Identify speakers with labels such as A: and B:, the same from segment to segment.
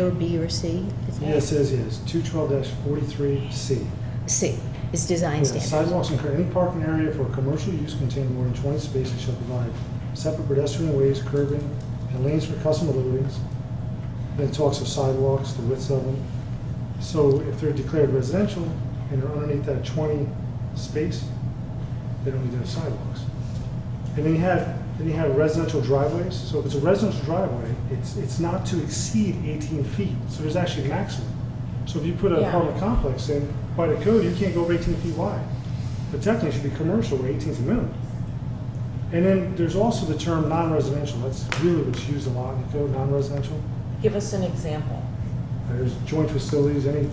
A: Or B or C? is that-
B: Yeah, it says yes, two twelve forty-three C.
A: C is design standards.
B: Sidewalks and any parking area for commercial use containing more than twenty spaces shall provide separate pedestrian ways, curbing, and lanes for customer loadings. Then it talks of sidewalks, the widths of them. So if they're declared residential and they're underneath that twenty space, they don't need to have sidewalks. And then you have, then you have residential driveways, so if it's a residential driveway, it's, it's not to exceed eighteen feet, so there's actually a maximum. So if you put an
C: Yeah.
B: apartment complex in, by the code, you can't go over eighteen feet wide, but technically it should be commercial, where 18 is the minimum. And then there's also the term non-residential, that's really what's used a lot in the code, non-residential.
C: Give us an example.
B: There's joint facilities, any,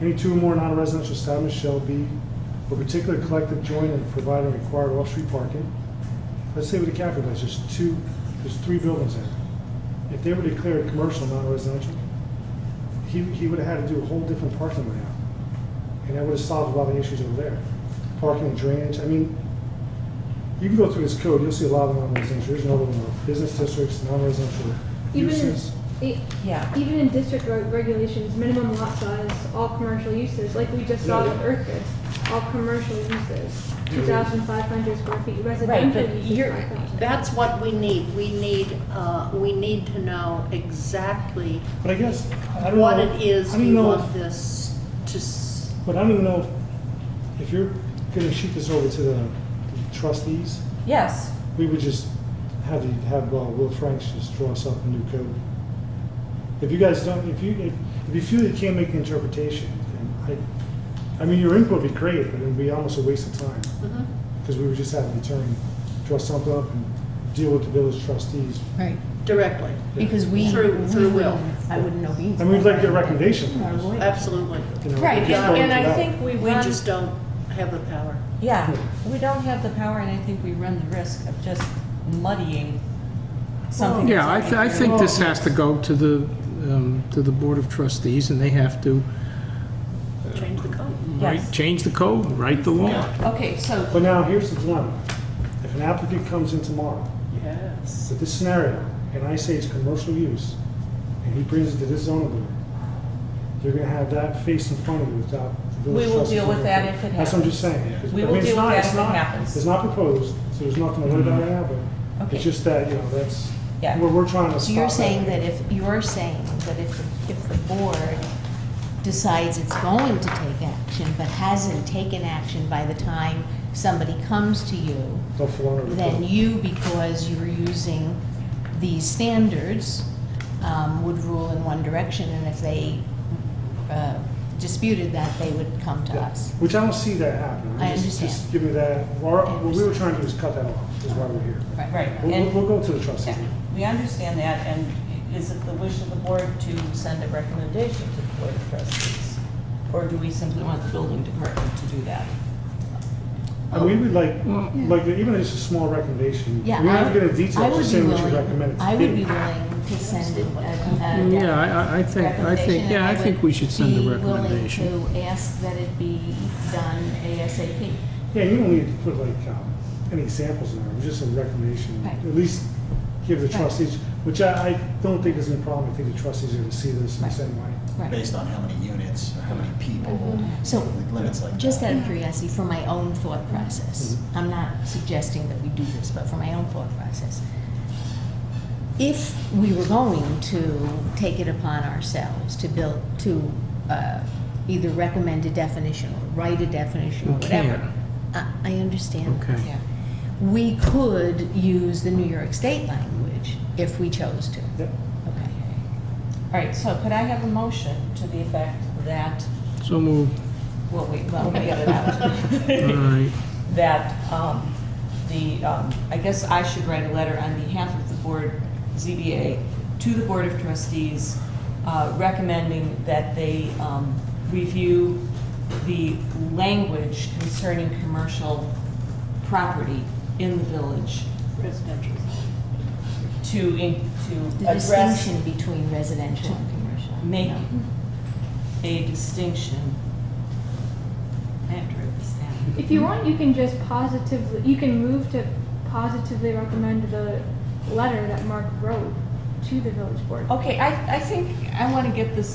B: any two or more non-residential establishments shall be, or particular collective joint and provide and required off-street parking. Let's say with the Capitol, there's just two, there's three buildings there. If they were declared commercial, non-residential, he, he would have had to do a whole different parking layout. And that would have solved a lot of the issues over there. Parking and drainage, I mean, you can go through this code, you'll see a lot of non-residential, there's another one, business districts, non-residential
D: Even in,
B: uses.
D: e-
C: Yeah.
D: even in district reg- regulations, minimum lot size, all commercial uses, like we just saw
B: Yeah.
D: with Earth Fest, all commercial uses, two thousand five hundred square feet,
C: Right,
D: residential
C: but
D: uses,
C: you're,
D: 5,000.
E: That's what we need. We need, uh, we need to know exactly
B: But I guess, I don't know.
E: what it is
B: I don't
E: we
B: know
E: want
B: if-
E: this to, s-
B: But I don't even know if if you're gonna shoot this over to the trustees,
C: Yes,
B: we would just have the, have uh, Will Franks just draw us up a new code. If you guys don't, if you, if if you feel you can't make the interpretation, then I, I mean, your input would be great, but it'd be almost a waste of time.
E: Mhm.
B: Because we would just have the attorney draw something up and deal with the village trustees.
A: Right,
E: directly,
A: because we.
E: Through-
A: we
E: through will.
A: wouldn't- I wouldn't know either.
B: And we'd like to get a recommendation from
A: Our
B: us.
A: lawyer.
E: absolutely.
B: you know,
C: right,
B: just
C: and
B: going
C: and
B: to
C: I
B: that.
C: think we
E: We
C: run,
E: just don't have the power.
C: yeah, we don't have the power, and I think we run the risk of just muddying something.
F: Yeah, I,
C: that's
F: th- I
C: already
F: think
C: there.
F: this has to go to the, um, to the Board of Trustees, and they have to,
E: Change the code.
F: right,
C: Yes.
F: change the code, write the law.
C: Okay, so,
B: But now, here's the dilemma. If an applicant comes in tomorrow
E: Yes.
B: So this scenario, and I say it's commercial use, and he brings it to this zoning board, you're gonna have that face in front of you without the village
C: We will
B: trustees
C: deal with that if it
B: That's what I'm
C: happens.
B: just saying. 'cause-
C: We
B: I
C: will
B: mean, it's
C: deal with
B: not-
C: that
B: it's
C: if it
B: not-
C: happens. Mm-hmm.
B: It's not proposed, so there's nothing to worry about right now, but
C: Okay.
B: it's just that, you know, that's,
C: Yeah.
B: we're, we're trying to stop.
A: So you're
B: that.
A: saying that if, you're saying that if, if the board decides it's going to take action, but hasn't taken action by the time somebody comes to you,
B: Don't fall under the
A: then
B: code.
A: you, because you're using these standards, um, would rule in one direction, and if they uh, disputed that, they would come to
B: Yeah.
A: us.
B: Which I don't see that happening.
A: I
B: Just- Just
A: understand.
B: give me that, Or- what we were
A: understand.
B: trying to do is cut that off, is why we're here.
C: right,
B: We'll, we'll-
C: and,
B: we'll go to the trustees.
C: yeah, we understand that, and is it the wish of the board to send a recommendation to the board of trustees? Or do we simply want the building department to do that?
B: And we would like,
F: Well-
B: like, even just a small recommendation,
A: Yeah,
B: we're not
A: I-
B: gonna detail,
A: I would
B: just
A: be
B: saying what you
A: willing-
B: recommend. it to
A: I would be
B: be.
A: willing to send a, a. a
F: Yeah, I- I, I think, I think, yeah, I think we should send a
A: Be
F: recommendation.
A: willing to ask that it be done ASAP.
B: Yeah, you don't need to put like, um, any examples in there, just a recommendation,
A: Right.
B: at least give the
A: Right.
B: trustees, which I, I don't think is a problem, I think the trustees are gonna see this in the
A: Right.
B: same way.
A: Right. Mm-hmm.
G: based on how many units or how many people,
A: So,
G: limits like that.
A: just out of curiosity, for my own thought process, I'm not suggesting that we do this, but for my own thought process, if we were going to take it upon ourselves to build, to uh, either recommend a definition or write a definition or
F: We
A: whatever.
F: can't.
A: I, I understand. that.
F: Okay.
C: Yeah.
A: We could use the New York State language if we chose to.
B: Yep.
A: Okay.
C: All right, so could I have a motion to the effect that,
F: So move,
C: well, wait, well, we get it out.
F: all right.
C: that um, the, um, I guess I should write a letter on behalf of the board, ZBA, to the Board of Trustees uh, recommending that they um, review the language concerning commercial property in the village
E: Residential.
C: to, in- to
A: The
C: address,
A: distinction between residential and commercial.
C: make
A: No.
C: a distinction. I have to write this down.
D: If you want, you can just positively, you can move to positively recommend the letter that Mark wrote to the village board.
C: Okay, I, I think I want to get this